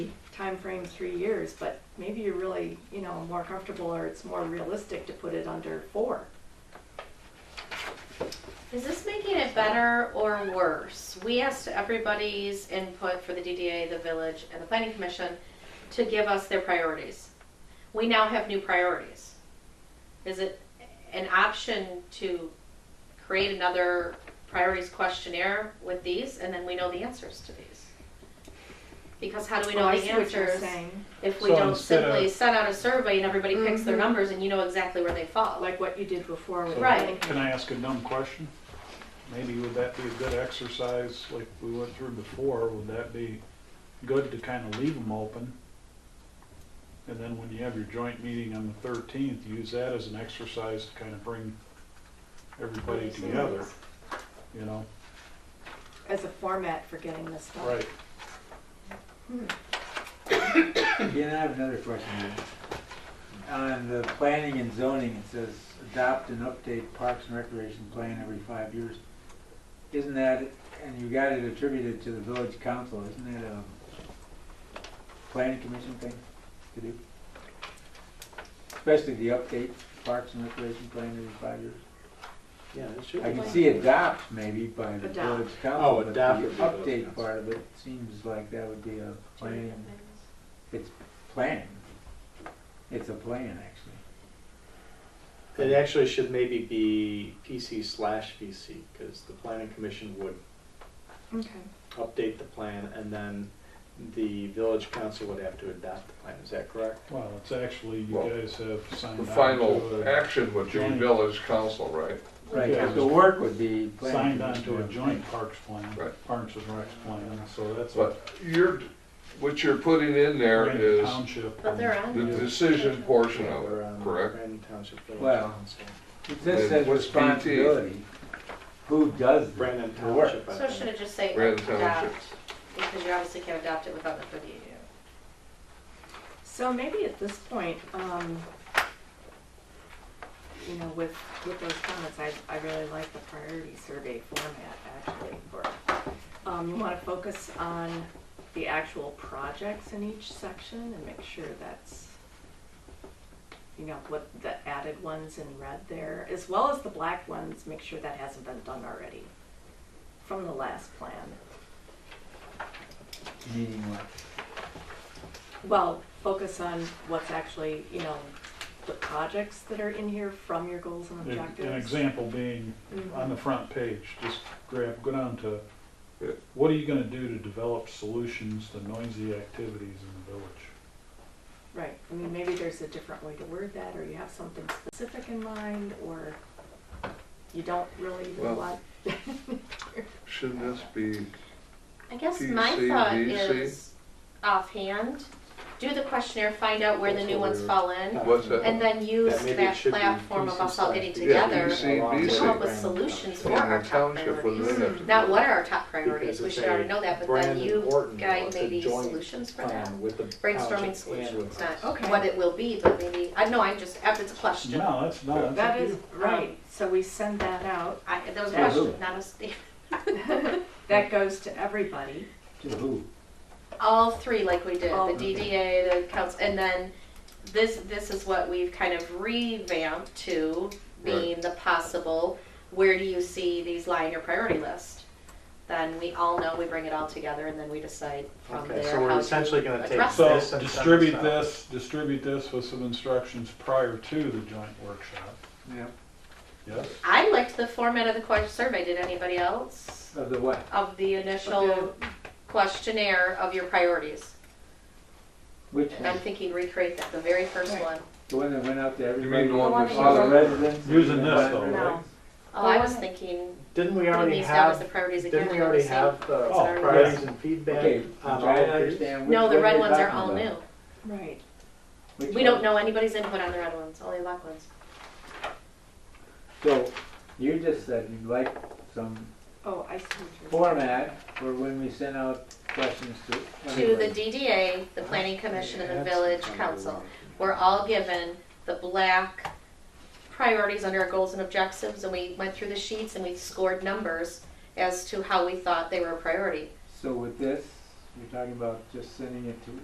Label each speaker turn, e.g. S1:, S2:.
S1: time frame three years, but maybe you're really, you know, more comfortable or it's more realistic to put it under four.
S2: Is this making it better or worse? We asked everybody's input for the DDA, the village, and the planning commission to give us their priorities. We now have new priorities. Is it an option to create another priorities questionnaire with these, and then we know the answers to these? Because how do we know
S1: Well, I
S2: the
S1: see what you're
S2: answers
S1: saying,
S2: if we
S3: So
S2: don't
S3: instead of-
S2: simply send out a survey and everybody picks their
S1: Mhm.
S2: numbers and you know exactly where they fall?
S1: Like what you did before with.
S3: So,
S2: Right.
S3: Can I ask a dumb question? Maybe would that be a good exercise, like we went through before, would that be good to kind of leave them open? And then when you have your joint meeting on the thirteenth, use that as an exercise to kind of bring everybody together, you know?
S1: As a format for getting this done.
S3: Right,
S4: Yeah, and I have another question. On the planning and zoning, it says adopt and update parks and recreation plan every five years. Isn't that, and you got it attributed to the village council, isn't that a planning commission thing to do? Especially the update parks and recreation plan every five years.
S5: Yeah, it should
S4: I
S5: be.
S4: can see adopt maybe by the
S1: Adopt.
S4: village council,
S5: Oh,
S4: but the
S5: adopt would be the-
S4: update part of it seems like that would be a
S2: Two different
S4: planning
S2: things.
S4: it's plan. It's a plan, actually.
S5: It actually should maybe be PC slash VC, because the planning commission would
S1: Okay,
S5: update the plan, and then the village council would have to adopt the plan, is that correct?
S3: well, it's actually, you
S6: Well,
S3: guys have signed
S6: The
S3: on to.
S6: final
S3: a-
S6: action would be
S3: Joint.
S6: village council, right?
S4: Right,
S3: Yeah.
S4: 'cause the work would be. planning
S3: Signed on
S4: commission.
S3: to a joint parks plan,
S6: Right.
S3: parks and recs plan, so that's what
S6: But you're, what you're putting in there
S3: Grand
S6: is
S3: Township.
S2: But they're on
S6: the decision portion of
S5: Or,
S6: it,
S5: um,
S6: correct?
S5: Brandon Township Village
S4: Well-
S5: Council.
S4: It just
S6: Then
S4: says
S6: what's PT?
S4: responsibility. Who does the
S5: Brandon
S4: the work?
S5: Township, I
S2: So
S5: think.
S2: should it just say
S6: Rather
S2: adopt,
S6: than township.
S2: because you obviously can't adopt it without the thirty-eight.
S1: so maybe at this point, um, you know, with, with those comments, I, I really like the priority survey format actually for, um, you wanna focus on the actual projects in each section and make sure that's, you know, what the added ones in red there, as well as the black ones, make sure that hasn't been done already from the last plan.
S4: Meaning what?
S1: Well, focus on what's actually, you know, the projects that are in here from your goals and objectives.
S3: An example being,
S1: Mhm.
S3: on the front page, just grab, go down to,
S6: Yeah.
S3: what are you gonna do to develop solutions to noisy activities in the village?
S1: Right, I mean, maybe there's a different way to word that, or you have something specific in mind, or you don't really even
S6: Well-
S1: want.
S6: Should this be,
S2: I guess
S6: PC,
S2: my thought
S6: VC.
S2: is offhand, do the questionnaire, find out where the
S5: That's
S2: new
S5: what
S2: ones
S5: we were-
S2: fall in,
S6: what's that?
S2: and then use
S5: maybe it
S2: that
S5: should be
S2: platform of us all getting
S5: PC/VC.
S6: Yeah,
S2: together
S6: PC.
S2: to come up with
S5: Brandon
S2: solutions
S5: Township.
S2: for our
S6: the
S2: top
S6: township would
S2: priorities.
S6: then have to.
S2: Not what are our top
S5: Because
S2: priorities, we
S5: it's
S2: should
S5: a
S2: already know that, but then
S5: Brandon
S2: you
S5: Orton bill,
S2: guide
S5: it's a
S2: maybe
S5: joint
S2: solutions for
S5: plan
S2: that.
S5: with the um, township
S2: Brainstorming
S5: and
S2: solutions,
S5: with us.
S2: not
S1: Okay.
S2: what it will be, but maybe, I know, I'm just, if it's a question,
S3: No, that's, no, that's.
S1: That
S3: up to
S1: is,
S3: you.
S1: right, so we send that out,
S2: I, that was a
S4: Yeah.
S2: question, not a statement.
S1: that goes to everybody.
S4: To who?
S2: all three like we did
S1: All
S2: the
S4: three.
S2: DDA, the council, and then this this is what we've kind of revamped to being the possible. Where do you see these lie in your priority list? Then we all know we bring it all together, and then we decide from
S5: Okay,
S2: there
S5: so we're
S2: how
S5: essentially
S2: to
S5: gonna take
S2: address
S3: So
S2: it.
S5: This and send
S3: distribute
S5: this out.
S3: this, distribute this with some instructions prior to the joint workshop,
S4: Yeah,
S3: yes?
S2: I liked the format of the question survey. Did anybody else
S4: of the what?
S2: of the initial
S1: Okay.
S2: questionnaire of your priorities?
S4: Which
S2: And I'm
S4: one?
S2: thinking recreate that the very first
S1: Right.
S2: one.
S4: The one that went out to
S6: You
S4: everybody?
S6: mean the one with
S4: All the
S6: solid?
S4: residents?
S3: Using
S4: and
S3: this,
S4: the-
S3: though,
S1: No. right?
S2: Oh, I was
S1: Well,
S2: thinking
S5: Didn't we
S2: putting
S5: already
S2: these down as the
S5: have,
S2: priorities again.
S5: didn't we
S2: they're the
S5: already
S2: same.
S5: have the
S3: Oh,
S5: priorities and feedback
S4: Okay, I'm
S5: on all
S6: um,
S4: trying to
S5: of these?
S4: understand. which
S2: No, the
S4: one
S2: red
S4: you're
S2: ones are
S4: talking
S2: all new.
S4: about.
S1: Right.
S4: Which
S2: We don't
S4: one?
S2: know anybody's input on the red ones, only the black ones.
S4: So you just said you'd like some
S1: Oh, I see what you're saying.
S4: format for when we send out questions to.
S2: To the
S4: everybody.
S2: DDA, the planning commission, and the
S5: That's
S2: village
S5: kind of
S2: council,
S5: weird.
S2: we're all given the black priorities under our goals and objectives, and we went through the sheets and we scored numbers as to how we thought they were a priority.
S4: So with this, you're talking about just sending it to